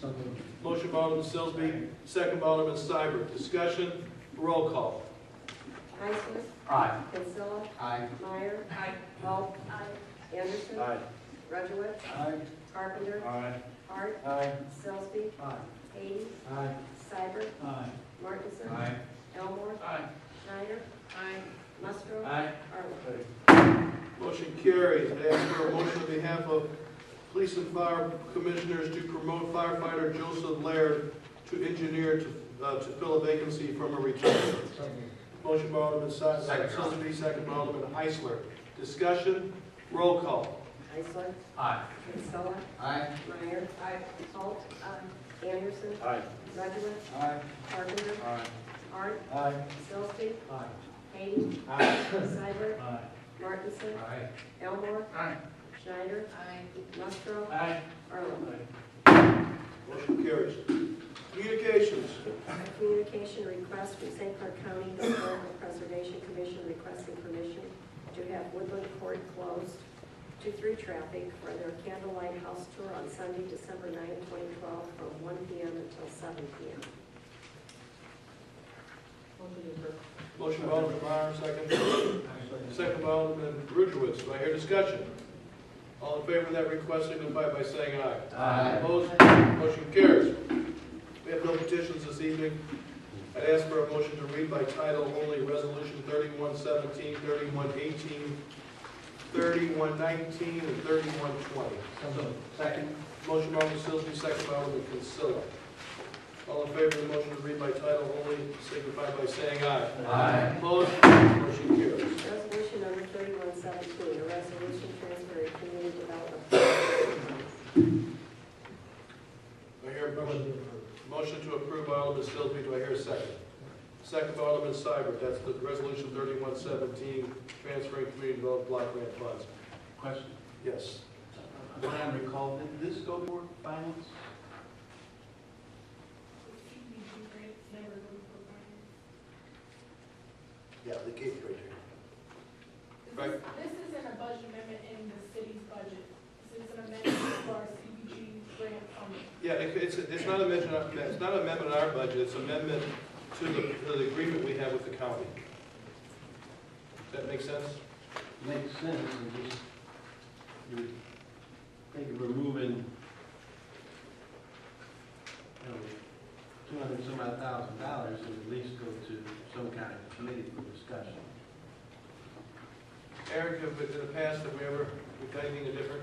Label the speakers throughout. Speaker 1: So moved.
Speaker 2: Motion by Alderman Sillsby, second by Alderman Seibert. Discussion, roll call.
Speaker 3: Heisler,
Speaker 1: Aye.
Speaker 3: Kinsella,
Speaker 1: Aye.
Speaker 3: Meyer. Aye. Holt. Aye. Anderson.
Speaker 1: Aye.
Speaker 3: Rudowitz,
Speaker 1: Aye.
Speaker 3: Carpenter.
Speaker 1: Aye.
Speaker 3: Hart.
Speaker 1: Aye.
Speaker 3: Sillsby.
Speaker 1: Aye.
Speaker 3: Hayden.
Speaker 1: Aye.
Speaker 3: Seibert.
Speaker 1: Aye.
Speaker 3: Martinson.
Speaker 1: Aye.
Speaker 3: Elmore.
Speaker 1: Aye.
Speaker 3: Schneider. Aye. Musgrove.
Speaker 1: Aye.
Speaker 3: Arlen.
Speaker 2: Motion carries. I ask for a motion on behalf of Police and Fire Commissioners to promote firefighter Joseph Laird to engineer to, uh, to fill a vacancy from a retirement.
Speaker 1: So moved.
Speaker 2: Motion by Alderman Si-
Speaker 1: Second.
Speaker 2: Sillsby, second by Alderman Heisler. Discussion, roll call.
Speaker 3: Heisler,
Speaker 1: Aye.
Speaker 3: Kinsella,
Speaker 1: Aye.
Speaker 3: Meyer. Aye. Holt. Aye. Anderson.
Speaker 1: Aye.
Speaker 3: Rudowitz,
Speaker 1: Aye.
Speaker 3: Carpenter.
Speaker 1: Aye.
Speaker 3: Hart.
Speaker 1: Aye.
Speaker 3: Sillsby.
Speaker 1: Aye.
Speaker 3: Hayden.
Speaker 1: Aye.
Speaker 3: Seibert.
Speaker 1: Aye.
Speaker 3: Martinson.
Speaker 1: Aye.
Speaker 3: Elmore.
Speaker 1: Aye.
Speaker 3: Schneider. Aye. Musgrove.
Speaker 1: Aye.
Speaker 3: Arlen.
Speaker 2: Motion carries. Communications.
Speaker 3: Communication request from St. Clair County Historical Preservation Commission requesting permission to have Woodland Court closed to through traffic for their candlelight house tour on Sunday, December 9, 2012, from 1 p.m. until 7 p.m.
Speaker 2: Motion by Alderman Meyer, second. Second by Alderman Rudowitz. Do I hear discussion? All in favor of that request signify by saying aye.
Speaker 1: Aye.
Speaker 2: Opposed? Motion carries. We have no petitions this evening. I'd ask for a motion to read by title only Resolution 3117, 3118, 3119, and 3120.
Speaker 1: So moved. Second.
Speaker 2: Motion by Alderman Sillsby, second by Alderman Consilla. All in favor of the motion to read by title only signify by saying aye.
Speaker 1: Aye.
Speaker 2: Opposed? Motion carries.
Speaker 3: Resolution number 3117, a resolution transferring community development. funds.
Speaker 2: Do I hear a motion? Motion to approve by Alderman Sillsby, do I hear a second? Second by Alderman Seibert, that's the resolution thirty-one seventeen, transferring community development block grant funds.
Speaker 4: Question,
Speaker 2: Yes.
Speaker 4: when I recall, did this go before finance?
Speaker 2: Yeah, the gate right Right.
Speaker 5: This isn't a budget amendment in the city's budget. This is an amendment for our CBG grant funding.
Speaker 2: Yeah, it- it's, it's not amendment, it's not amendment in our budget, it's amendment to the, to the agreement we have with the county. Does that make sense?
Speaker 4: Makes sense, and just, you would think of removing, you know, two hundred and some odd thousand dollars, and at least go to some kind of committee for discussion.
Speaker 2: Eric, have in the past, have we ever, we've done anything different?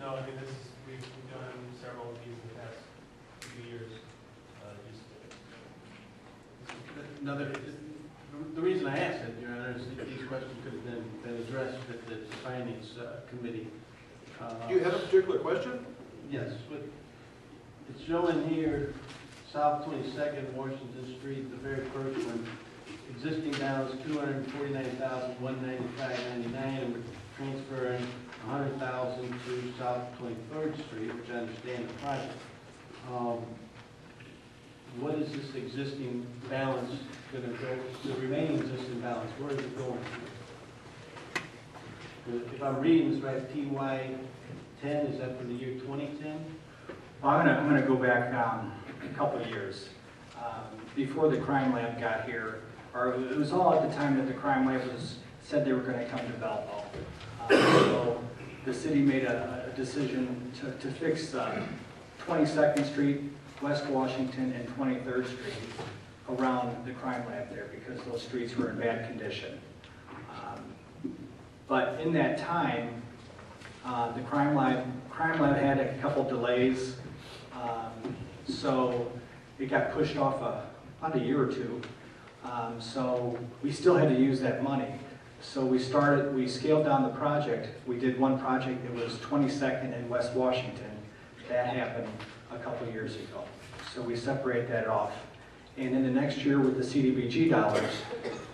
Speaker 6: No, I mean, this is, we've we've done several of these in the past few years. uh, just-
Speaker 4: Another, the reason I asked it, Your Honor, is that these questions could have been, been addressed at the finance uh, committee. uh,
Speaker 2: Do you have a particular question?
Speaker 4: Yes, but it's showing here, South Twenty-second, Washington Street, the very first one, existing balance two hundred and forty-nine thousand, one ninety-five ninety-nine, and we're transferring a hundred thousand to South Twenty-third Street, which I understand the project. Um, What is this existing balance gonna go, the remaining existing balance, where is it going? If I'm reading this right, TY ten, is that for the year twenty-ten?
Speaker 7: Well, I'm gonna, I'm gonna go back um, a couple of years. Um, Before the crime lab got here, or it was all at the time that the crime lab was, said they were gonna come to Belleville. Uh, So the city made a, a decision to, to fix uh, 22nd Street, West Washington, and 23rd Street around the crime lab there because those streets were in bad condition. Um, But in that time, uh, The crime lab, crime lab had a couple delays, um, so it got pushed off a- about a year or two. Um, So we still had to use that money. So we started, we scaled down the project. We did one project that was 22nd in West Washington. That happened a couple years ago. So we separate that off. And then the next year with the CDBG dollars,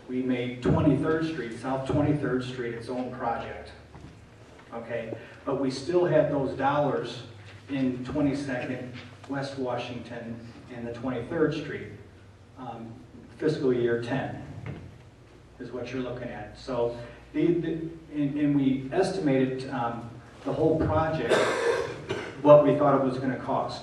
Speaker 7: we made 23rd Street, South 23rd Street, its own project okay? But we still had those dollars in 22nd, West Washington, and the 23rd Street, um, fiscal year 10 is what you're looking at. So, the, the- and and we estimated um, the whole project, what we thought it was going to cost.